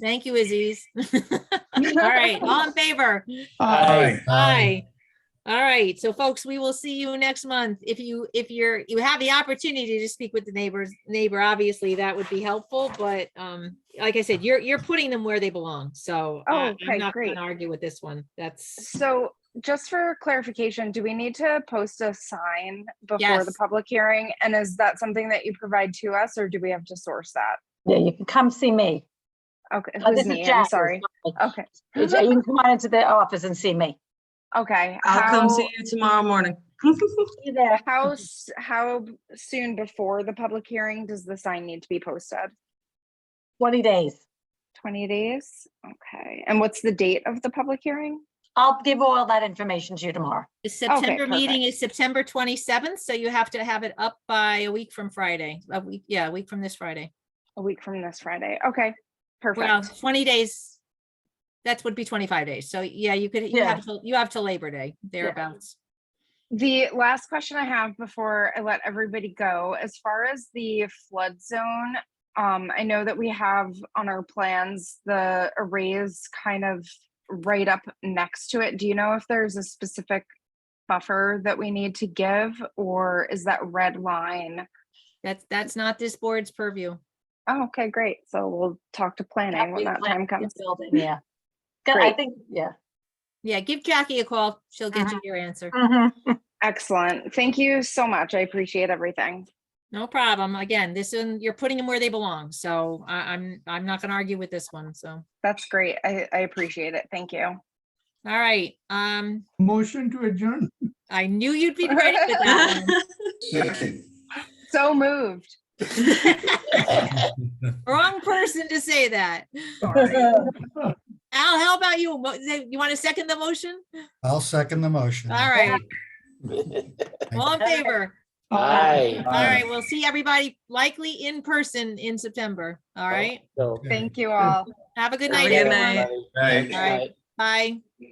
Thank you, Aziz. All right, all in favor? Aye. Aye. All right, so folks, we will see you next month. If you, if you're, you have the opportunity to speak with the neighbors, neighbor, obviously, that would be helpful, but um, like I said, you're, you're putting them where they belong, so. uh, Oh, I'm okay, not gonna great. Argue with this one, that's, So just for clarification, do we need to post a sign before the Yes. public hearing? And is that something that you provide to us or do we have to source that? Yeah, you can come see me. Okay, Oh, who's this is me? I'm Jackie. sorry. Okay, You can come on into the office and see me. okay. I'll come How- see you tomorrow morning. See you there. How, s- how b- soon before the public hearing does the sign need to be posted? 20 days. 20 days? Okay. And what's the date of the public hearing? I'll give all that information to you tomorrow. the September meeting is September twenty-seventh, so you have to have it up by a week from Friday, a week, yeah, a week from this Friday. A week from this Friday. Okay, Well, perfect. twenty days, that would be twenty-five days, so yeah, you could, you Yeah. have, till- you have till Labor Day, thereabouts. The last question I have before I let everybody go, as far as the flood zone, um, I know that we have on our plans, the arrays kind of right up next to it. Do you know if there's a specific buffer that we need to give or is that red line? That's, that's not this board's purview. Oh, okay, great. So we'll talk to planning when that time comes. Yeah. Good, I Great. think, yeah. Yeah, give Jackie a call. She'll get you your answer. Mhm. Excellent. Thank you so much. I appreciate everything. No problem. Again, this one, you're putting them where they belong. So I, I'm, I'm not gonna argue with this one. So, all That's great. I, I appreciate it. Thank you. right. Um, Motion to adjourn. I knew you'd be ready for that one. Second. So moved. Wrong person to say that. Mm-hmm. Al, how about you? Mo- You want to second the motion? I'll second the motion. All right. All in favor? Aye. All right, we'll see everybody likely in person in September. All right. So. Thank you all. Have a good Have night, a good everyone. night. All right, bye.